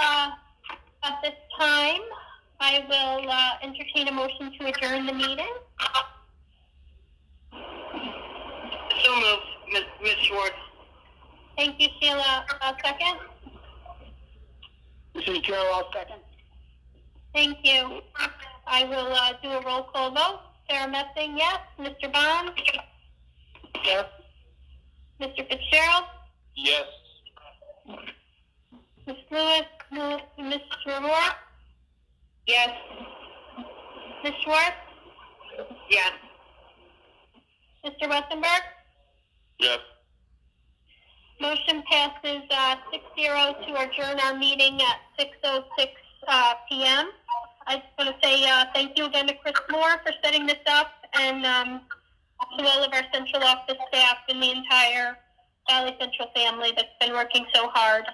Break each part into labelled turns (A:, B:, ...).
A: Uh, I will uh, entertain a motion to adjourn the meeting.
B: So moved, Ms. Ms. Schwartz.
A: Thank you, Sheila. A second?
B: This is Gerald, I'll second.
A: Thank you. I will uh, do a roll call vote. Sarah Messing, yes. Mr. Bond?
B: Yes.
A: Mr. Fitzgerald?
B: Yes.
A: Ms. Lewis? Ms. Mr. Moore?
B: Yes.
A: Ms. Schwartz?
B: Yes.
A: Mr. Westenberg?
B: Yes.
A: Motion passes uh, 6-0 to adjourn our meeting at 6:06 uh, PM. I just want to say uh, thank you again to Chris Moore for setting this up and um, to all of our central office staff and the entire Valley Central family that's been working so hard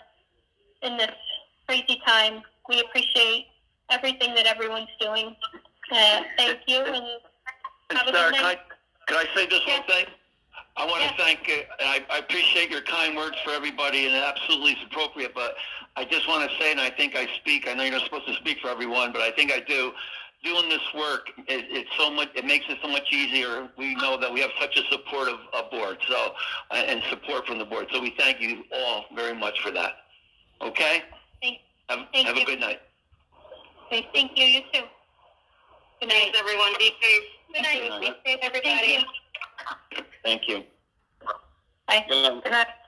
A: in this crazy time. We appreciate everything that everyone's doing. Uh, Thank you, and
C: And
A: Have a
C: Sarah,
A: good
C: can I,
A: night.
C: can I say this
A: Yeah.
C: one thing? I want
A: Yeah.
C: to thank, uh, I, I appreciate your kind words for everybody, and it absolutely is appropriate, but I just want to say, and I think I speak, I know you're not supposed to speak for everyone, but I think I do, doing this work, it, it's so much, it makes it so much easier. We know that we have such a supportive uh, board, so, uh, and support from the board, so we thank you all very much for that. Okay?
A: Thank-
C: Have,
A: thank
C: have
A: you.
C: a good night.
A: thank you, you too. Good night.
B: Thanks, everyone. Be safe.
A: Good night.
C: Good night.
A: Be safe, everybody.
C: Thank you.
A: Bye.
C: Good night.
A: Good night.